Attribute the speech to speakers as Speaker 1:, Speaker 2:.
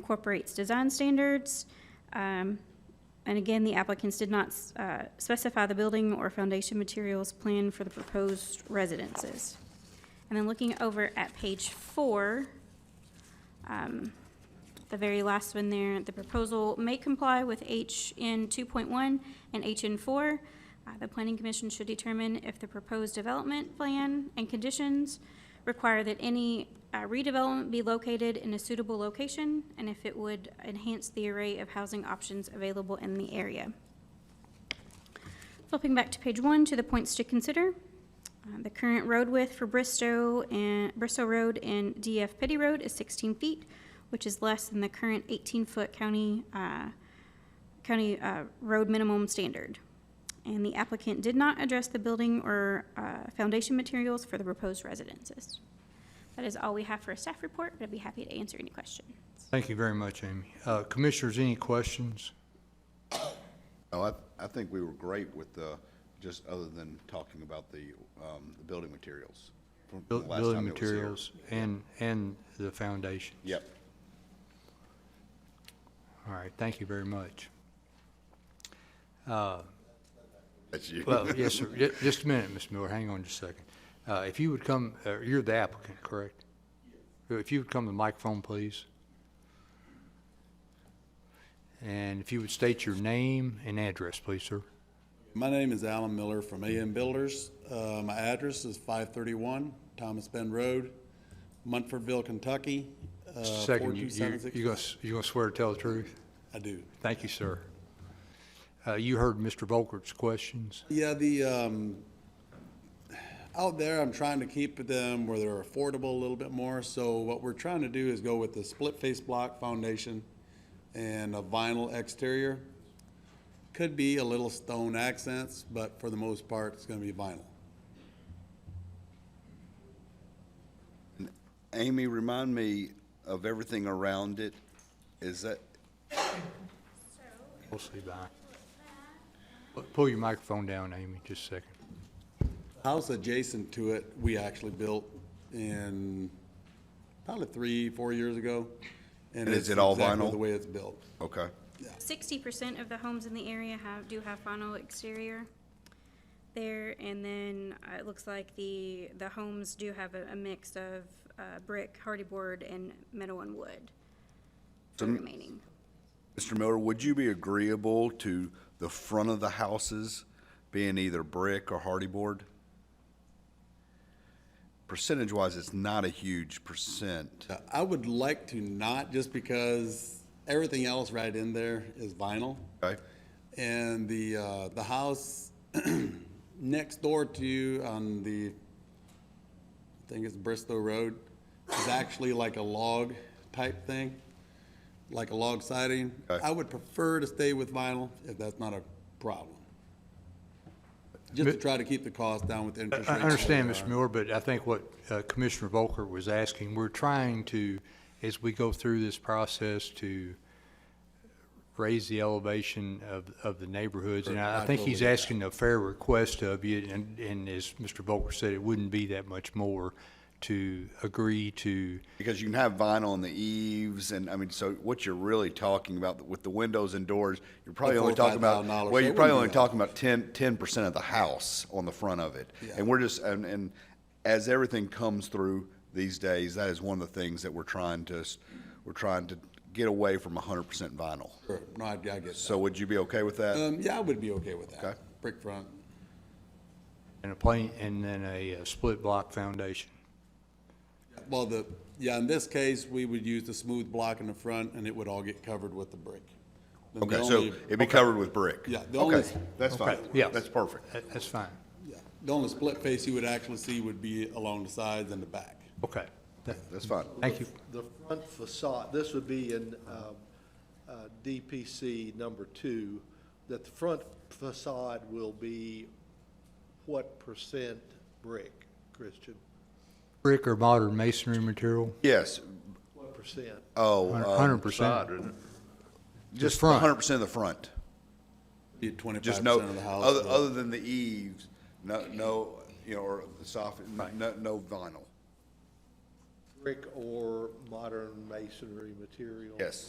Speaker 1: incorporates design standards. Um, And again, the applicants did not uh, specify the building or foundation materials planned for the proposed residences. And then looking over at page four, um, the very last one there, the proposal may comply with HN 2.1 and HN 4. Uh, The planning commission should determine if the proposed development plan and conditions require that any uh, redevelopment be located in a suitable location, and if it would enhance the array of housing options available in the area. Flipping back to page one, to the points to consider. Uh, The current road width for Bristow and, Bristow Road and DF Petty Road is 16 feet, which is less than the current 18-foot county, uh, county uh, road minimum standard. And the applicant did not address the building or uh, foundation materials for the proposed residences. That is all we have for a staff report, but I'd be happy to answer any questions.
Speaker 2: Thank you very much, Amy. Uh, Commissioners, any questions?
Speaker 3: No, Oh, I, I think we were great with the, just other than talking about the, um, the building materials. from the
Speaker 2: Buil-
Speaker 3: last
Speaker 2: Building
Speaker 3: time it was here.
Speaker 2: materials and, and the foundation?
Speaker 3: Yep.
Speaker 2: All right, thank you very much. Uh,
Speaker 3: That's you.
Speaker 2: Well, yes, sir. Ju- Just a minute, Ms. Miller, hang on just a second. Uh, If you would come, uh, you're the applicant, correct? If you would come to the microphone, please. And if you would state your name and address, please, sir.
Speaker 4: My name is Alan Miller from AM Builders. Uh, My address is 531 Thomas Bend Road, Munfordville, Kentucky. uh,
Speaker 2: Second, you, you
Speaker 4: 42760.
Speaker 2: you gonna s- you gonna swear to tell the truth?
Speaker 4: I do.
Speaker 2: Thank you, sir. Uh, You heard Mr. Volkert's questions.
Speaker 4: Yeah, the, um, out there, I'm trying to keep them where they're affordable a little bit more. So what we're trying to do is go with the split face block foundation and a vinyl exterior. Could be a little stone accents, but for the most part, it's going to be vinyl.
Speaker 3: Amy, remind me of everything around it. Is that,
Speaker 2: We'll see by. Pull your microphone down, Amy, just a second.
Speaker 4: House adjacent to it, we actually built in probably three, four years ago.
Speaker 3: And is
Speaker 4: it's
Speaker 3: it all
Speaker 4: exactly
Speaker 3: vinyl?
Speaker 4: The way it's built.
Speaker 3: okay.
Speaker 1: 60% of the homes in the area have, do have vinyl exterior there, and then uh, it looks like the, the homes do have a, a mix of uh, brick, hardy board, and metal and wood for the remaining.
Speaker 3: Mr. Miller, would you be agreeable to the front of the houses being either brick or hardy board? Percentage wise, it's not a huge percent.
Speaker 4: Uh, I would like to not, just because everything else right in there is vinyl.
Speaker 3: Okay?
Speaker 4: And the, uh, the house next door to you on the, I think it's Bristow Road, is actually like a log type thing, like a log siding.
Speaker 3: Okay.
Speaker 4: I would prefer to stay with vinyl if that's not a problem. Just to try to keep the cost down with interest
Speaker 2: I
Speaker 4: rates.
Speaker 2: I understand,
Speaker 4: where
Speaker 2: Mr.
Speaker 3: Uh,
Speaker 4: they are.
Speaker 2: Muir, but I think what uh, Commissioner Volker was asking, we're trying to, as we go through this process, to raise the elevation of, of the neighborhoods. And I I think he's
Speaker 4: Absolutely.
Speaker 2: asking a fair request of you, and, and as Mr. Volker said, it wouldn't be that much more to agree to,
Speaker 3: Because you can have vinyl on the eaves, and I mean, so what you're really talking about with the windows and doors, you're probably
Speaker 4: Like
Speaker 3: only
Speaker 4: four or
Speaker 3: talking
Speaker 4: five
Speaker 3: about,
Speaker 4: thousand dollars.
Speaker 3: well,
Speaker 4: They
Speaker 3: you're probably
Speaker 4: wouldn't do
Speaker 3: only
Speaker 4: that.
Speaker 3: talking about 10 percent of the house on the front of it.
Speaker 4: Yeah.
Speaker 3: And we're just, and, and as everything comes through these days, that is one of the things that we're trying to, s- we're trying to get away from hundred percent vinyl.
Speaker 4: Sure. No, I I get that.
Speaker 3: So would you be okay with that?
Speaker 4: Um, yeah, I would be okay with that.
Speaker 3: Okay.
Speaker 4: Brick front.
Speaker 2: and a plain, and then a uh, split block foundation.
Speaker 4: Well, the, yeah, in this case, we would use the smooth block in the front, and it would all get covered with the brick. And the
Speaker 3: Okay, so
Speaker 4: only-
Speaker 3: it'd be covered with brick?
Speaker 4: Yeah, the only-
Speaker 3: Okay, that's fine.
Speaker 2: Okay, yeah.
Speaker 3: That's perfect.
Speaker 2: That- That's fine.
Speaker 4: yeah, The only split face you would actually see would be along the sides and the back.
Speaker 2: Okay. That-
Speaker 3: That's fine.
Speaker 2: Thank you.
Speaker 5: The front facade, this would be in um, uh, DPC number two, that the front facade will be what percent brick, Christian?
Speaker 2: Brick or modern masonry material?
Speaker 3: Yes,
Speaker 5: What percent?
Speaker 3: oh,
Speaker 2: Hundred
Speaker 3: um,
Speaker 2: percent.
Speaker 3: just
Speaker 2: front.
Speaker 3: hundred percent of the front.
Speaker 4: Be twenty-five
Speaker 3: Just no,
Speaker 4: percent of the house.
Speaker 3: other,
Speaker 4: but-
Speaker 3: other than the eaves, no, no, you know, or the soffit, no, no vinyl.
Speaker 5: brick or modern masonry material?
Speaker 3: Yes.